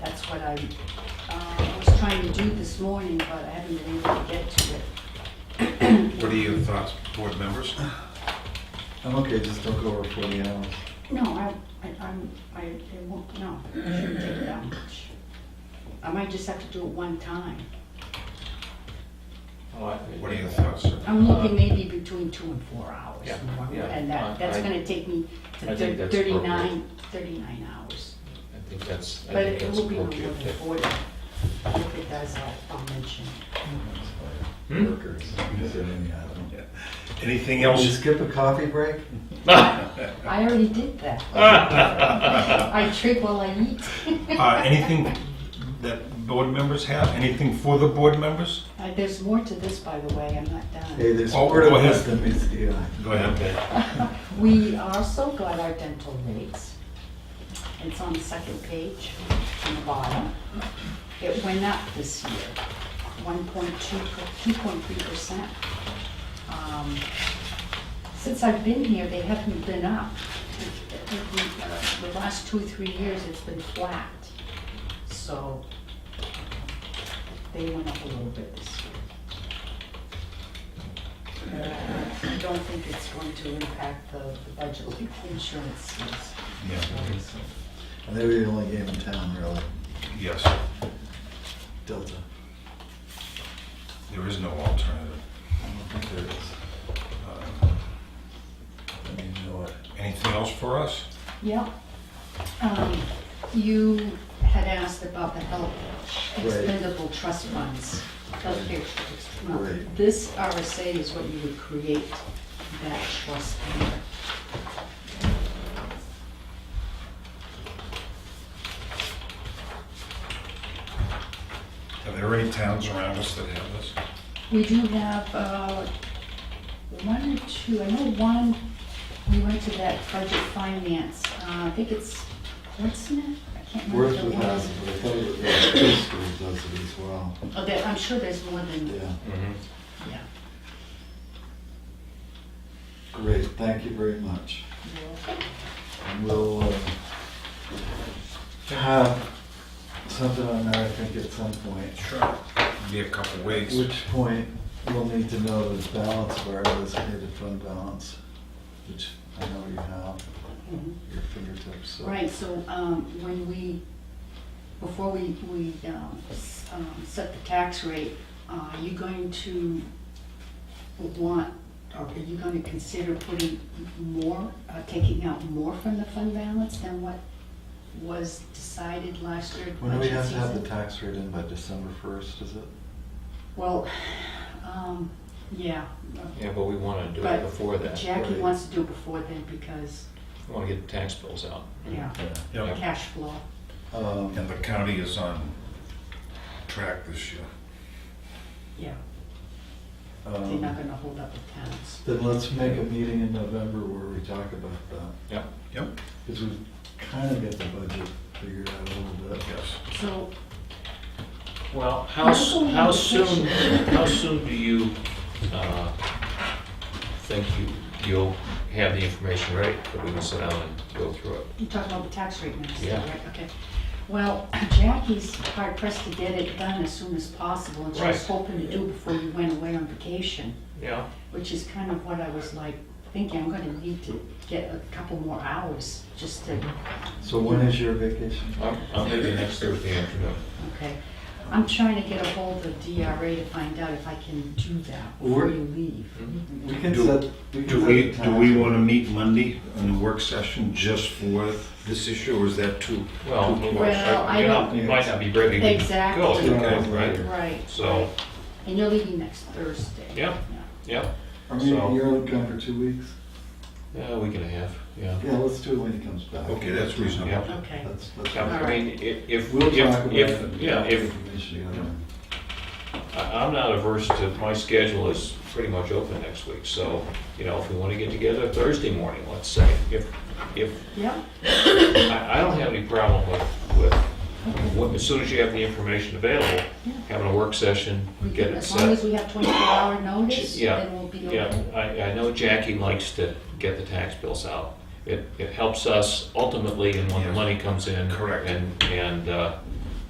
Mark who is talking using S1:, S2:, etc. S1: what I uh, was trying to do this morning, but I haven't been able to get to it.
S2: What are your thoughts, board members?
S3: I'm okay, just don't go over forty hours.
S1: No, I, I, I'm, I, it won't, no, it shouldn't take that much. I might just have to do it one time.
S4: Oh,
S2: What are your thoughts, sir?
S1: I'm looking maybe between two and four hours
S4: Yeah,
S1: more,
S4: yeah,
S1: and
S4: I-
S1: that, that's
S4: I-
S1: gonna take me
S4: I
S1: to
S4: think
S1: thir-
S4: that's
S1: thirty-nine, thirty-nine hours.
S4: I think that's, I
S1: But
S4: think
S1: it
S4: that's
S1: will be no more
S4: appropriate.
S1: than forty. If it does, I'll, I'll mention.
S4: Hmm?
S3: Workers. Is there any- I don't know.
S2: Anything
S3: Can we
S2: else?
S3: skip a coffee break?
S1: I already did that. I trip while I eat.
S2: Uh, Anything that board members have? Anything for the board members?
S1: Uh, There's more to this, by the way, I'm not
S3: Hey,
S1: done.
S3: there's
S2: Oh,
S3: more
S2: go
S3: to
S2: ahead.
S3: this than meets the eye.
S2: Go ahead.
S1: We also got our dental rates. It's on the second page, on the bottom. It went up this year, 1.2, 2.3%. Um, Since I've been here, they haven't been up. The last two, three years, it's been flat. So they went up a little bit this year. I don't think it's going to impact the the budget like the insurance is.
S2: Yeah,
S3: And they were the only game in town, really.
S2: Yes,
S3: Delta.
S2: there is no alternative.
S3: I don't think there is.
S2: Uh,
S3: I mean, you know what?
S2: Anything else for us?
S1: Yeah. Um, You had asked about the health expendable trust funds, healthcare trust funds.
S3: Right.
S1: This RSA is what you would create that trust fund.
S2: Are there any towns around us that have this?
S1: We do have uh, one or two, I know one, we went to that budget finance, uh, I think it's Portsmouth? I can't remember.
S3: Worth
S1: if it
S3: with
S1: was.
S3: us, but I thought it was, yeah, two schools does it as well,
S1: Oh, there, I'm sure there's more than,
S3: yeah.
S4: Mhm.
S1: yeah.
S3: Great, thank you very much. And we'll uh, have something on that, I think, at some point.
S2: Sure. Be a couple
S3: At
S2: weeks.
S3: which point, we'll need to know the balance of our designated fund balance, which I know you have
S1: Mhm.
S3: at your fingertips. so-
S1: Right, so um, when we, before we, we um, s- um, set the tax rate, are you going to want, or are you going to consider putting more, uh, taking out more from the fund balance than what was decided last year? at
S3: When do we
S1: budget
S3: have to have the
S1: season?
S3: tax rate in by December first, is it?
S1: Well, um, yeah.
S4: Yeah, but we want to do it
S1: but
S4: before that.
S1: Jackie
S3: right.
S1: wants to do it before then because,
S4: We want to get the tax bills out.
S1: yeah,
S2: Yep.
S1: cash flow.
S3: Um,
S2: And the county is on track this year.
S1: Yeah, they're
S3: um,
S1: not going to hold up the towns.
S3: Then let's make a meeting in November where we talk about that,
S4: Yeah.
S2: Yep.
S3: because we kind of get the budget figured out a little bit.
S2: Yes.
S1: So
S4: Well, how, s- how soon, how soon do you uh, think you, you'll have the information ready that we can sit down and go through it?
S1: You're talking about the tax rate now, still,
S4: Yeah.
S1: right? Okay. Well, Jackie's hard pressed to get it done as soon as possible, and she was
S4: Right.
S1: hoping to do before you went away on vacation,
S4: Yeah.
S1: which is kind of what I was like thinking, I'm gonna need to get a couple more hours just to,
S3: So when is your vacation?
S4: I'm, I'm maybe next Thursday afternoon.
S1: okay. I'm trying to get a hold of DRA to find out if I can do that before
S3: We're-
S1: you leave.
S4: Mm-hmm.
S3: We can
S2: Do-
S3: set. can
S2: Do
S3: set
S2: we,
S3: the
S2: do
S3: time.
S2: we want to meet Monday in the work session just for this issue, or is that too?
S4: Well,
S2: too
S4: you
S2: close?
S1: Well, I
S4: know,
S3: don't-
S4: you might not be ready to
S1: Exactly.
S4: go,
S3: Two hours
S4: right?
S3: later.
S1: Right.
S4: So-
S1: right. And you're leaving next Thursday.
S4: Yeah. Yeah,
S3: I mean,
S4: So-
S3: you're only gone for two weeks.
S4: yeah, a week and a half, yeah.
S3: Yeah, let's do it when he comes back.
S2: Okay, that's reasonable.
S4: Yeah.
S1: Okay.
S3: That's, that's.
S4: Yeah,
S1: All
S4: I
S1: right.
S4: mean, if, if,
S3: We'll talk about
S4: if,
S3: it.
S4: if, yeah, if,
S3: Information together.
S4: I- I'm not averse to, my schedule is pretty much open next week, so, you know, if we want to get together Thursday morning, let's say, if, if,
S1: Yeah,
S4: I, I don't have any problem with, with, what- as soon as you have the information available, having a work session,
S1: we
S4: get
S1: can,
S4: it
S1: as long as
S4: set.
S1: we have twenty-four hour notice,
S4: Yeah,
S1: then we'll be
S4: yeah,
S1: okay.
S4: I, I know Jackie likes to get the tax bills out. It, it helps us ultimately, and when the
S2: Yeah.
S4: money comes in.
S2: Correct.
S4: And, and, uh,